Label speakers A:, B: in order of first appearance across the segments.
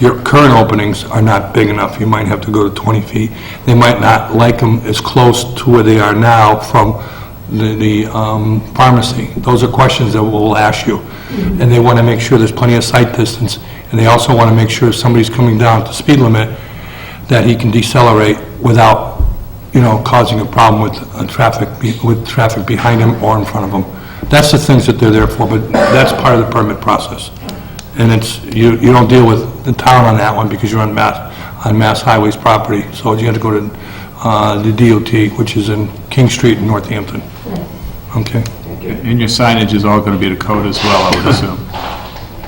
A: your current openings are not big enough, you might have to go to 20 feet. They might not like them as close to where they are now from the- the um, pharmacy. Those are questions that we'll ask you. And they want to make sure there's plenty of sight distance, and they also want to make sure if somebody's coming down to speed limit, that he can decelerate without, you know, causing a problem with uh, traffic, be- with traffic behind him or in front of him. That's the things that they're there for, but that's part of the permit process. And it's, you, you don't deal with the town on that one because you're on Mass, on Mass Highways property, so you have to go to uh, the DOT, which is in King Street in Northampton. Okay?
B: And your signage is all going to be to code as well, I would assume.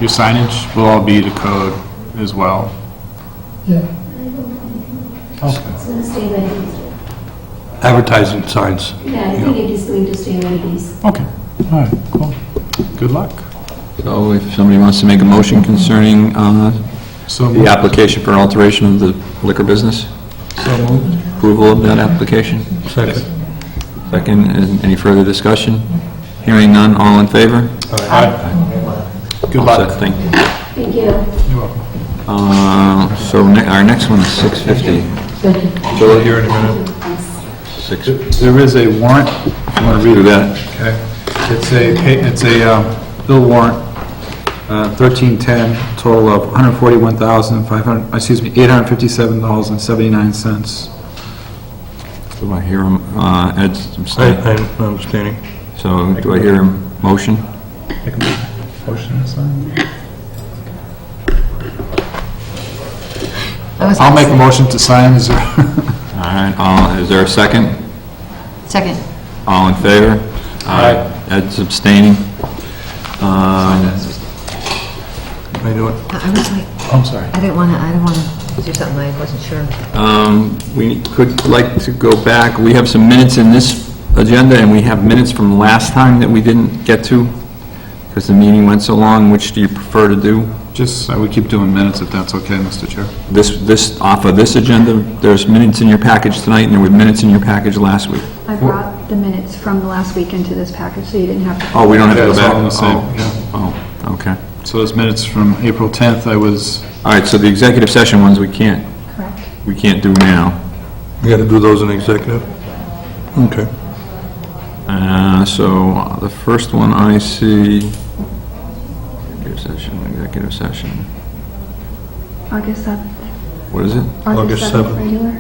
B: Your signage will all be to code as well.
C: It's going to stay like it is.
A: Advertising signs.
C: Yeah, I think it is going to stay like it is.
B: Okay, all right, cool. Good luck.
D: So if somebody wants to make a motion concerning uh,
B: So
D: the
B: moved.
D: application for an alteration of the liquor business,
B: So moved.
D: approval of that application.
A: Second.
D: Second, is any further discussion? Hearing none, all in favor?
B: Good
D: All
B: luck.
D: set, thank you.
C: Thank you.
D: Uh, So ne- our next one is 650. Bill, here in a minute. Six,
B: There is a warrant, if you want to read
D: do
B: it.
D: that.
B: Okay. It's a, pa- it's a um, bill warrant, uh, 1310, total of 141,500, excuse me, $857.79.
D: Do I hear him, uh, Ed's
A: I,
D: abstaining.
A: I'm understanding.
D: So do I hear a motion?
B: Motion to sign?
E: I was-
B: I'll make a motion to sign, is there?
D: All right, all- is there a second?
E: Second.
D: All in favor? Aye. Ed's abstaining. Um,
A: I do it.
E: I I was like,
B: I'm sorry.
E: I didn't want to, I didn't want to do something I wasn't sure.
D: Um, We could like to go back, we have some minutes in this agenda, and we have minutes from last time that we didn't get to, because the meeting went so long, which do you prefer to do?
B: Just, uh, we keep doing minutes if that's okay, Mr. Chair.
D: This, this, off of this agenda, there's minutes in your package tonight, and there were minutes in your package last week.
F: I brought the minutes from the last week into this package, so you didn't have to.
D: Oh, we don't have to go
B: Yeah, it's all
D: back?
B: in the same,
D: Oh, Oh, okay.
B: So those minutes from April 10th, I was,
D: All right, so the executive session ones, we can't,
F: Correct.
D: we can't do now.
A: You got to do those in executive? Okay.
D: Uh, So uh, the first one I see, executive session, executive session,
F: August 7th.
D: what is it?
A: August 7th.
F: Regular,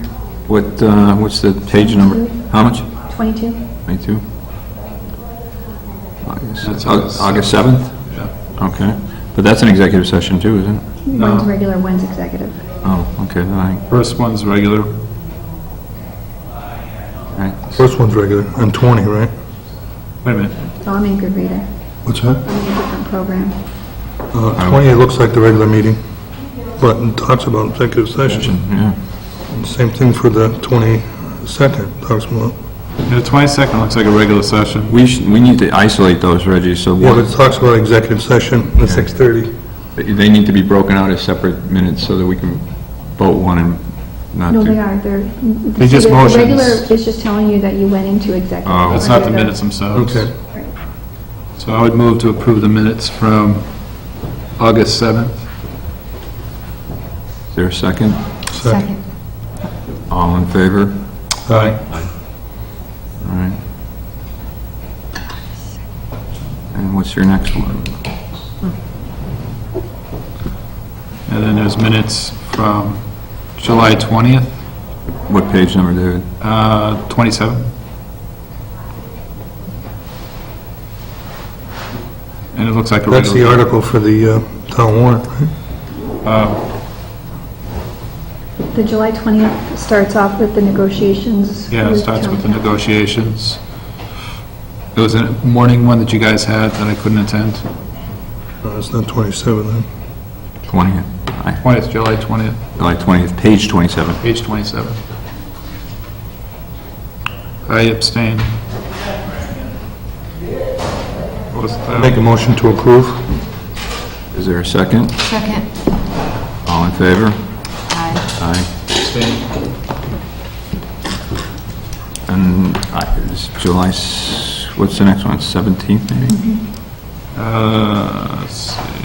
D: What, uh, what's the page number? How much?
F: 22.
D: 22? August
B: That's
D: Au-
B: August
D: August 7th? Okay. But that's an executive session too, isn't it?
B: uh,
F: One's regular, one's executive.
D: Oh, okay, all right,
B: first one's regular,
D: all right.
A: First one's regular, on 20, right?
B: wait a minute,
F: So I'm a good reader.
A: What's that?
F: I'm in a different program.
A: Uh, 20, it looks like the regular meeting, but it talks about executive session.
D: Yeah.
A: Same thing for the 22nd, talks about,
B: Yeah, the 22nd looks like a regular session.
D: We should, we need to isolate those, Reggie, so
A: yeah,
D: one-
A: but it talks about executive session at 6:30.
D: they need to be broken out as separate minutes so that we can vote one and not
F: No, they
D: do.
F: are, they're.
B: They just
F: The regular
B: motions.
F: is just telling you that you went into executive.
D: Oh.
B: That's not the minutes themselves.
A: Okay.
B: So I would move to approve the minutes from August 7th.
D: Is there a second?
A: Second.
D: All in favor?
B: Aye.
D: All right. And what's your next one?
B: And then there's minutes from July 20th,
D: What page number, David?
B: uh, 27. And it looks like a regular.
A: That's the article for the uh, town warrant, right?
F: The July 20th starts off with the negotiations.
B: Yeah, it starts with the negotiations. It was a morning one that you guys had that I couldn't attend,
A: No, Uh, it's not 27 then.
D: 20th, Aye.
B: 20th, July 20th,
D: July 20th, page 27.
B: page 27. I abstain. What was that?
A: Make a motion to approve?
D: Is there a second?
E: Second.
D: All in favor?
E: Aye.
D: Aye.
B: Abstain.
D: And aye, it's July, s- what's the next one, 17th maybe?
B: Uh, let's see.